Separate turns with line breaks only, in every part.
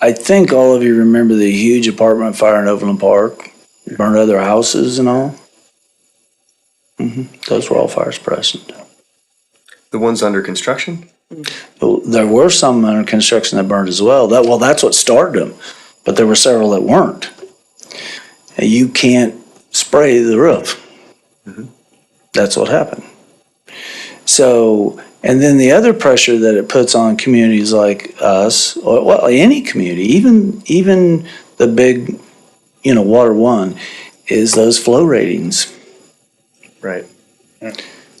I think all of you remember the huge apartment fire in Overland Park, burned other houses and all. hmm Those were all fire suppressant.
The ones under construction?
Well, There were some under construction that burned as well. That, well, that's what started them, but there were several that weren't. And you can't spray the roof. That's what happened. So, and then the other pressure that it puts on communities like us, or well, any community, even, even the big, you know, Water One, is those flow ratings.
Right.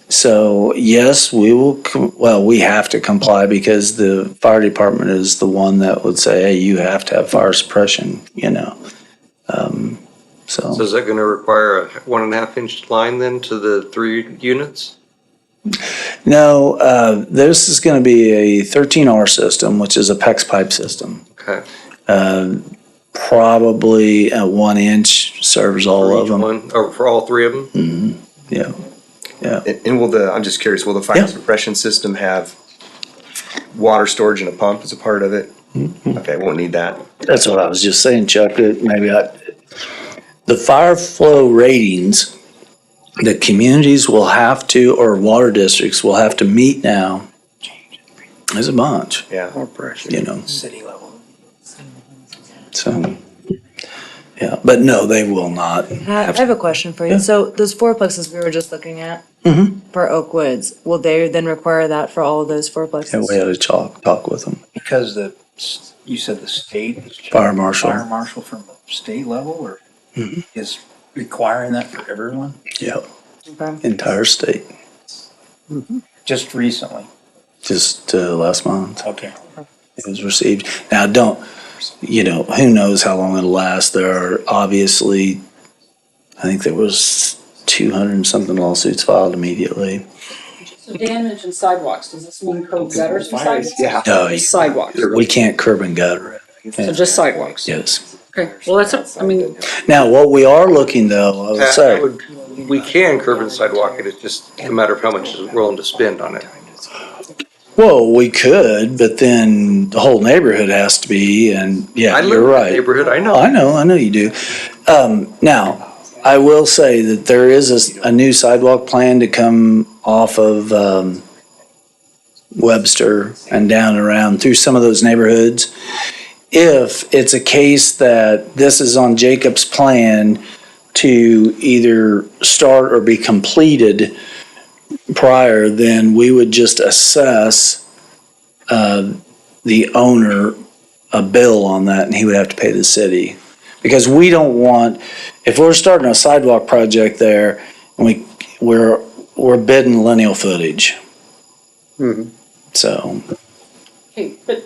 So yes, we will, com- well, we have to comply because the fire department is the one that would say, hey, you have to have fire suppression, you know? Um,
So
So,
is that gonna require a one and a half inch line then to the three units?
no, uh, this is gonna be a thirteen R system, which is a PEX pipe system.
Okay.
Uh, Probably a one inch serves all
For
of
each
them,
one- Or for all three of them?
yeah.
And, and will the, I'm just curious, will the
Yeah.
fire suppression system have water storage and a pump as a part of it?
Mm-hmm.
Okay, won't need that.
That's what I was just saying, Chuck, that maybe I, the fire flow ratings that communities will have to, or water districts will have to meet now is a bunch,
Yeah.
you know? City level. So, yeah, but no, they will not.
I I have a question for you. So those fourplexes we were just looking at for Oak Woods, will they then require that for all of those
And
fourplexes?
we had to talk, talk with them.
Because the, s- you said the state. is-
Fire marshal. Mm-hmm.
Fire marshal from the state level or is requiring that for everyone?
Yep.
Okay.
Entire state,
Just recently,
just uh, last month.
okay.
it was received. Now, don't, you know, who knows how long it'll last. There are obviously, I think there was 200 and something lawsuits filed immediately.
So Dan mentioned sidewalks, does this mean code gutters and sidewalks?
Uh,
Yeah.
No, you-
Sidewalks,
Uh, We can't curb and gutter it,
so just sidewalks.
yes.
Okay, well, that's, I mean,
Now, what we are looking though, I would
That-
say,
that Uh, would- We can curb and sidewalk it, it's just a matter of how much is willing to spend on it.
well, we could, but then the whole neighborhood has to be, and yeah,
I
you're
live in that
right.
neighborhood, I know.
I know, I know you do. Um, now, I will say that there is a, s- a new sidewalk plan to come off of, um, Webster and down around through some of those neighborhoods. If it's a case that this is on Jacob's plan to either start or be completed prior, then we would just assess, uh, the owner a bill on that and he would have to pay the city. Because we don't want, if we're starting a sidewalk project there and we, we're, we're bidding lineal footage. So,
okay, but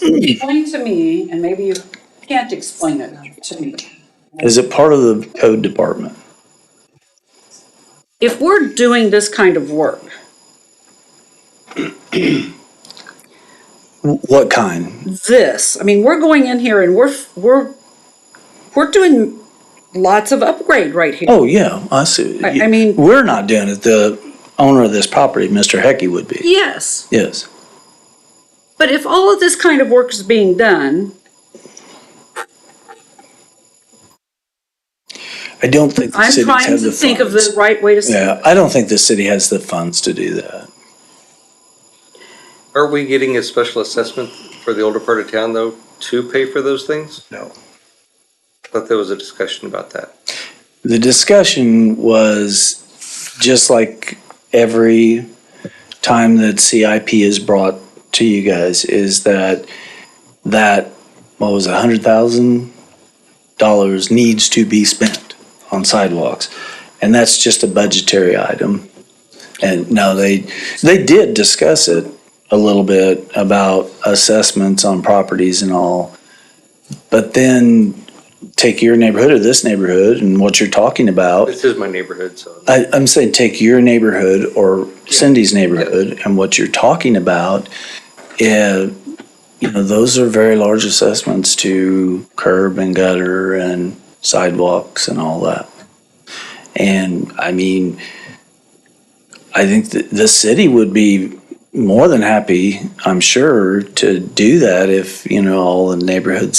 explain to me, and maybe you can't explain it to me.
is it part of the code department?
If we're doing this kind of work,
What kind?
this, I mean, we're going in here and we're, we're, we're doing lots of upgrade right here.
Oh, yeah, I see.
I- I mean-
We're not doing it. The owner of this property, Mr. Hecky would be.
Yes.
Yes.
But if all of this kind of work is being done,
I don't think the
I'm
cities
trying
have
to
the
think of
funds.
the right way to say
Yeah, I don't think the city has the funds to do that.
Are we getting a special assessment for the older part of town though, to pay for those things?
No.
Thought there was a discussion about that.
The discussion was just like every time that CIP is brought to you guys is that that what was a hundred thousand dollars needs to be spent on sidewalks, and that's just a budgetary item. And no, they they did discuss it a little bit about assessments on properties and all, but then take your neighborhood or this neighborhood and what you're talking about
This is my neighborhood, so.
I, I'm saying take your neighborhood or Cindy's neighborhood and what you're talking about, eh, you know, those are very large assessments to curb and gutter and sidewalks and all that. And I mean, I think that the city would be more than happy, I'm sure, to do that if, you know, all the neighborhoods